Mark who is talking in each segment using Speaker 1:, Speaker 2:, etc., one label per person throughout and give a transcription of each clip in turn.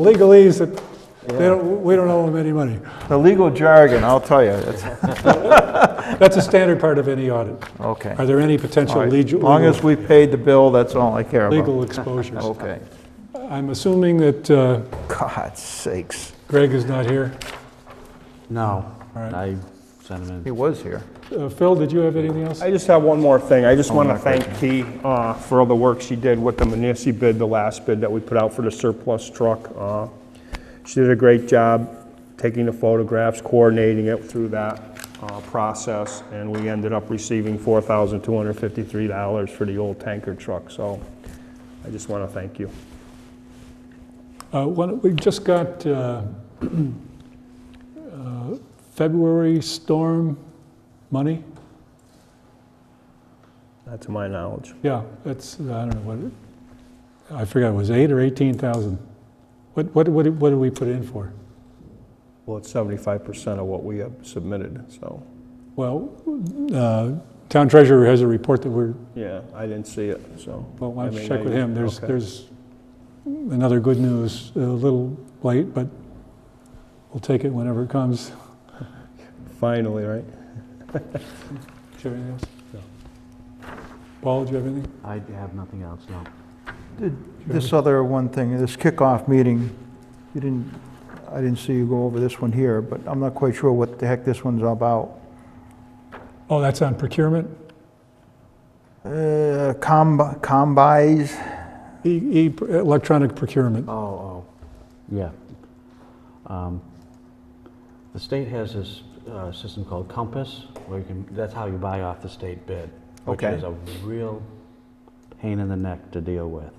Speaker 1: legalese that they don't, we don't owe them any money.
Speaker 2: The legal jargon, I'll tell you, it's,
Speaker 1: That's a standard part of any audit.
Speaker 2: okay.
Speaker 1: Are there any potential
Speaker 2: All right,
Speaker 1: legal?
Speaker 2: Long as we Oh. paid the bill, that's all I care about.
Speaker 1: Legal exposures.
Speaker 2: Okay.
Speaker 1: I'm assuming that uh,
Speaker 2: God sakes.
Speaker 1: Greg is not here.
Speaker 3: No,
Speaker 1: right.
Speaker 3: I sent him
Speaker 2: He
Speaker 3: in.
Speaker 2: was here.
Speaker 1: Uh, Phil, did you have anything else?
Speaker 4: I just have one more thing. I just want to thank Kee uh, for all the work she did with the Manisi bid, the last bid that we put out for the surplus truck. Uh, She did a great job taking the photographs, coordinating it through that uh, process, and we ended up receiving $4,253 for the old tanker truck, so I just want to thank you.
Speaker 1: Uh, one- We just got uh, uh, February storm money.
Speaker 4: Not to my knowledge.
Speaker 1: Yeah, that's, I don't know what, it- I forgot, it was eight or 18,000? What, what, what did what did we put in for?
Speaker 4: Well, it's 75% of what we have submitted, so,
Speaker 1: Well, uh, town treasurer has a report that we're,
Speaker 4: yeah, I didn't see it, so.
Speaker 1: well, why
Speaker 4: I
Speaker 1: don't you
Speaker 4: mean,
Speaker 1: check
Speaker 4: I-
Speaker 1: with him? There's,
Speaker 4: okay.
Speaker 1: there's another good news, a little late, but we'll take it whenever it comes.
Speaker 4: Finally, right?
Speaker 1: Do you have anything else? Paul, do you have anything?
Speaker 3: I have nothing else, no.
Speaker 2: This other one thing, this kickoff meeting, you didn't, I didn't see you go over this one here, but I'm not quite sure what the heck this one's about.
Speaker 1: Oh, that's on procurement?
Speaker 2: Uh, comb- Combis,
Speaker 1: E, e- electronic procurement.
Speaker 3: Oh, oh, yeah. Um, The state has this uh, system called Compass, where you can, that's how you buy off the state bid, which
Speaker 2: Okay.
Speaker 3: is a real pain in the neck to deal with.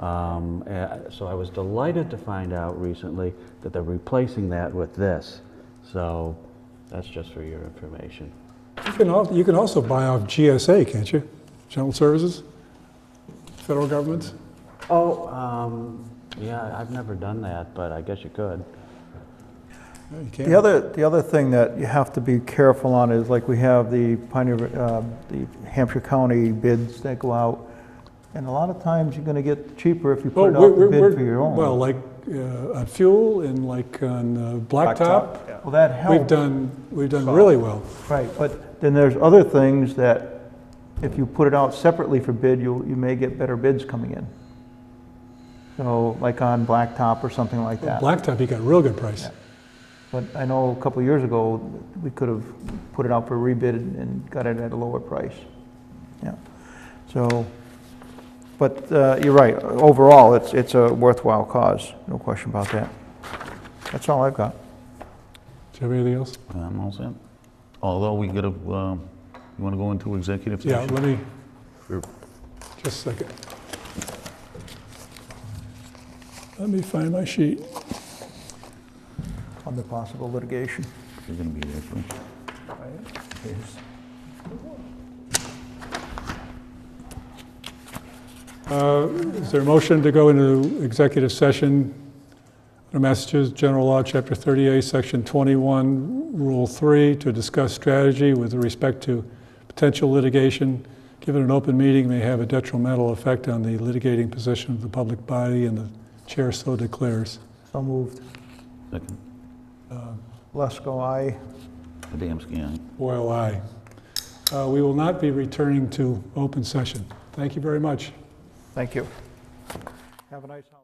Speaker 3: Um, uh, So I was delighted to find out recently that they're replacing that with this. So that's just for your information.
Speaker 1: You can, al- you can also buy off GSA, can't you? General Services? Federal government?
Speaker 3: Oh, um, yeah, I've never done that, but I guess you could.
Speaker 1: No, you can't.
Speaker 2: The other, the other thing that you have to be careful on is, like, we have the Pioneer, uh, the Hampshire County bids that go out, and a lot of times you're gonna get cheaper if you
Speaker 1: Well,
Speaker 2: put it
Speaker 1: Oh, we're,
Speaker 2: out
Speaker 1: we're,
Speaker 2: to bid for
Speaker 1: we're-
Speaker 2: your own.
Speaker 1: well, like, uh, on fuel and like on uh, blacktop,
Speaker 4: Blacktop, yeah.
Speaker 2: Well, that
Speaker 1: we've
Speaker 2: helps,
Speaker 1: done, we've done really well.
Speaker 2: right, but then there's other things that, if you put it out separately for bid, you, you may get better bids coming in. So, like on blacktop or something like that.
Speaker 1: Blacktop, you got a real good price.
Speaker 2: But I know a couple of years ago, we could have put it out for rebid and got it at a lower price. Yeah, so, but uh, you're right, overall, it's, it's a worthwhile cause, no question about that. That's all I've got.
Speaker 1: Do you have anything else?
Speaker 5: I'm all set. Although we gotta, um, you wanna go into executive
Speaker 1: Yeah,
Speaker 5: session?
Speaker 1: let me,
Speaker 5: Sure.
Speaker 1: just a second. Let me find my sheet.
Speaker 2: On the possible litigation.
Speaker 5: You're gonna be there, too.
Speaker 1: Uh, Is there a motion to go into executive session under Massachusetts General Law, Chapter 38, Section 21, Rule 3, to discuss strategy with respect to potential litigation? Given an open meeting may have a detrimental effect on the litigating position of the public body, and the chair so declares.
Speaker 2: So moved.
Speaker 5: Second,
Speaker 2: Lesko, aye.
Speaker 5: Adamski, aye.
Speaker 1: Boyle, aye. oh, Uh, We will not be returning to open session. Thank you very much.
Speaker 2: Thank you. Have a nice holiday.